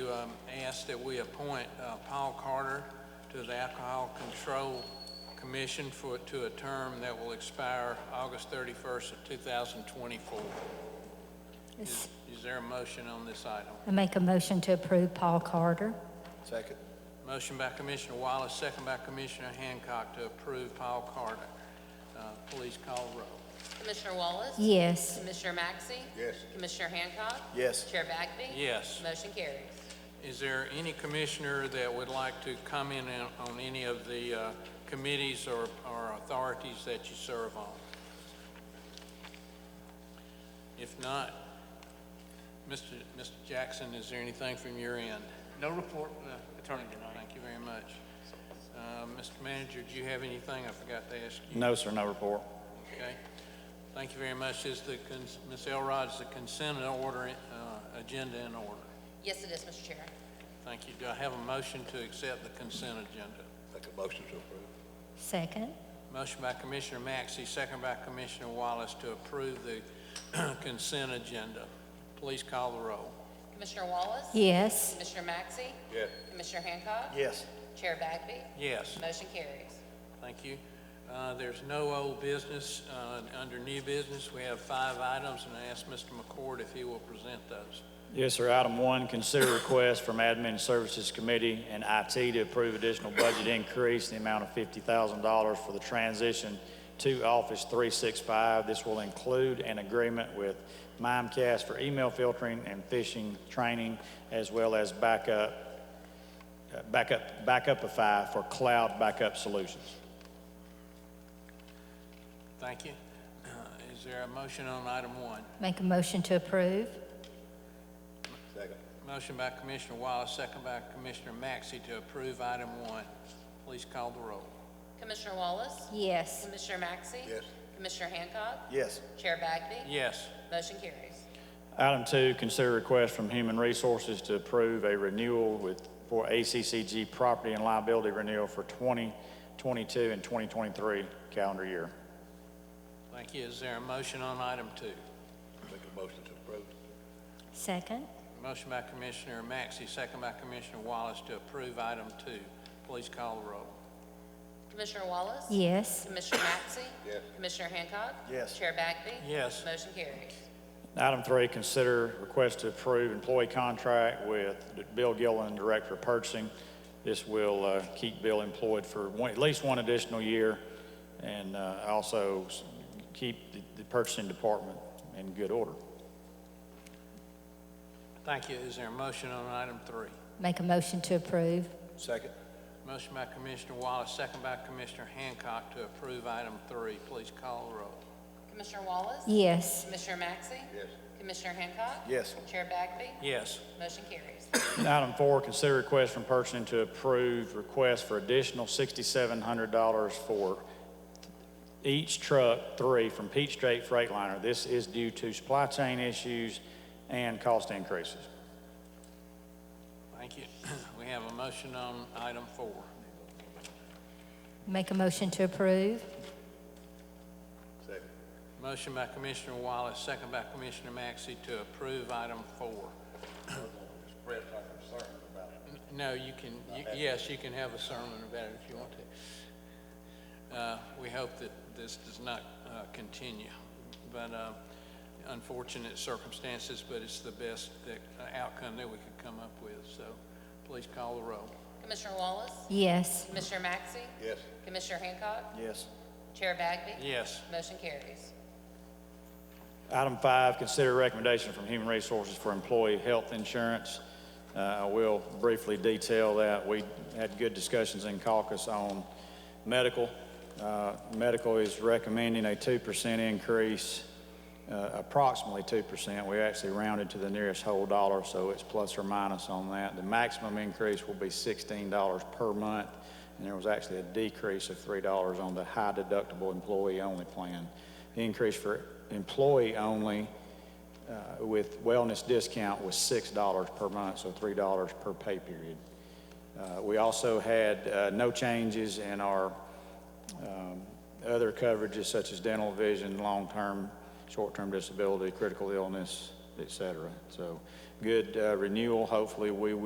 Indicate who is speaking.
Speaker 1: um, ask that we appoint uh, Paul Carter to the Alcohol Control Commission for, to a term that will expire August 31st of 2024. Is
Speaker 2: Yes.
Speaker 1: is there a motion on this item?
Speaker 2: I make a motion to approve Paul Carter.
Speaker 3: Second.
Speaker 1: Motion by Commissioner Wallace, second by Commissioner Hancock to approve Paul Carter. Uh, Please call roll.
Speaker 4: Commissioner Wallace?
Speaker 2: Yes.
Speaker 4: Commissioner Maxey,
Speaker 3: Yes.
Speaker 4: Commissioner Hancock?
Speaker 3: Yes.
Speaker 4: Chair Bagby?
Speaker 1: Yes.
Speaker 4: Motion carries.
Speaker 1: Is there any commissioner that would like to comment on- on any of the uh, committees or or authorities that you serve on? If not, Mr. Mr. Jackson, is there anything from your end?
Speaker 5: No report from the attorney tonight.
Speaker 1: Thank you very much. Uh, Mr. Manager, do you have anything? I forgot to ask you.
Speaker 6: No, sir, no report.
Speaker 1: Okay. Thank you very much. Is the, cons- Ms. Elrod, is the consent in order, uh, agenda in order?
Speaker 4: Yes, it is, Mr. Chair.
Speaker 1: Thank you. Do I have a motion to accept the consent agenda?
Speaker 3: Make a motion to approve.
Speaker 2: Second.
Speaker 1: Motion by Commissioner Maxey, second by Commissioner Wallace to approve the consent agenda. Please call the roll.
Speaker 4: Commissioner Wallace?
Speaker 2: Yes.
Speaker 4: Commissioner Maxey,
Speaker 3: Yes.
Speaker 4: Commissioner Hancock?
Speaker 3: Yes.
Speaker 4: Chair Bagby?
Speaker 1: Yes,
Speaker 4: Motion carries.
Speaker 1: thank you. Uh, There's no old business. Uh, Under new business, we have five items, and I ask Mr. McCord if he will present those.
Speaker 6: Yes, sir. Item one, consider request from Admin Services Committee and IT to approve additional budget increase in the amount of $50,000 for the transition to Office 365. This will include an agreement with Mimecast for email filtering and phishing training, as well as backup, uh, backup, Backupify for cloud backup solutions.
Speaker 1: Thank you. Uh, Is there a motion on item one?
Speaker 2: Make a motion to approve.
Speaker 3: Second.
Speaker 1: Motion by Commissioner Wallace, second by Commissioner Maxey to approve item one. Please call the roll.
Speaker 4: Commissioner Wallace?
Speaker 2: Yes.
Speaker 4: Commissioner Maxey,
Speaker 3: Yes.
Speaker 4: Commissioner Hancock?
Speaker 3: Yes.
Speaker 4: Chair Bagby?
Speaker 1: Yes.
Speaker 4: Motion carries.
Speaker 6: Item two, consider request from Human Resources to approve a renewal with, for ACCG property and liability renewal for 2022 and 2023 calendar year.
Speaker 1: Thank you. Is there a motion on item two?
Speaker 3: Make a motion to approve.
Speaker 2: Second.
Speaker 1: Motion by Commissioner Maxey, second by Commissioner Wallace to approve item two. Please call the roll.
Speaker 4: Commissioner Wallace?
Speaker 2: Yes.
Speaker 4: Commissioner Maxey,
Speaker 3: Yes.
Speaker 4: Commissioner Hancock?
Speaker 3: Yes.
Speaker 4: Chair Bagby?
Speaker 1: Yes.
Speaker 4: Motion carries.
Speaker 6: Item three, consider request to approve employee contract with Bill Gillen, Director of Purchasing. This will uh, keep Bill employed for one- at least one additional year and uh, also s- keep the- the purchasing department in good order.
Speaker 1: Thank you. Is there a motion on item three?
Speaker 2: Make a motion to approve.
Speaker 3: Second.
Speaker 1: Motion by Commissioner Wallace, second by Commissioner Hancock to approve item three. Please call the roll.
Speaker 4: Commissioner Wallace?
Speaker 2: Yes.
Speaker 4: Commissioner Maxey,
Speaker 3: Yes.
Speaker 4: Commissioner Hancock?
Speaker 3: Yes.
Speaker 4: Chair Bagby?
Speaker 1: Yes.
Speaker 4: Motion carries.
Speaker 6: Item four, consider request from purchasing to approve request for additional $6,700 for each truck three from Peach Straight Freightliner. This is due to supply chain issues and cost increases.
Speaker 1: Thank you. We have a motion on item four.
Speaker 2: Make a motion to approve.
Speaker 3: Second.
Speaker 1: Motion by Commissioner Wallace, second by Commissioner Maxey to approve item four.
Speaker 3: Express our concern about
Speaker 1: No, you can, y- yes, you can have a sermon about it if you want to. Uh, We hope that this does not uh, continue, but uh, unfortunate circumstances, but it's the best that- uh, outcome that we could come up with, so please call the roll.
Speaker 4: Commissioner Wallace?
Speaker 2: Yes.
Speaker 4: Commissioner Maxey,
Speaker 3: Yes.
Speaker 4: Commissioner Hancock?
Speaker 3: Yes.
Speaker 4: Chair Bagby?
Speaker 1: Yes.
Speaker 4: Motion carries.
Speaker 6: Item five, consider recommendation from Human Resources for employee health insurance. Uh, I will briefly detail that. We had good discussions in caucus on medical. Uh, Medical is recommending a 2% increase, uh, approximately 2%. We actually rounded to the nearest whole dollar, so it's plus or minus on that. The maximum increase will be $16 per month, and there was actually a decrease of $3 on the high deductible employee-only plan. The increase for employee-only uh, with wellness discount was $6 per month, so $3 per pay period. Uh, We also had uh, no changes in our um, other coverages such as dental, vision, long-term, short-term disability, critical illness, et cetera. So good uh, renewal. Hopefully, we will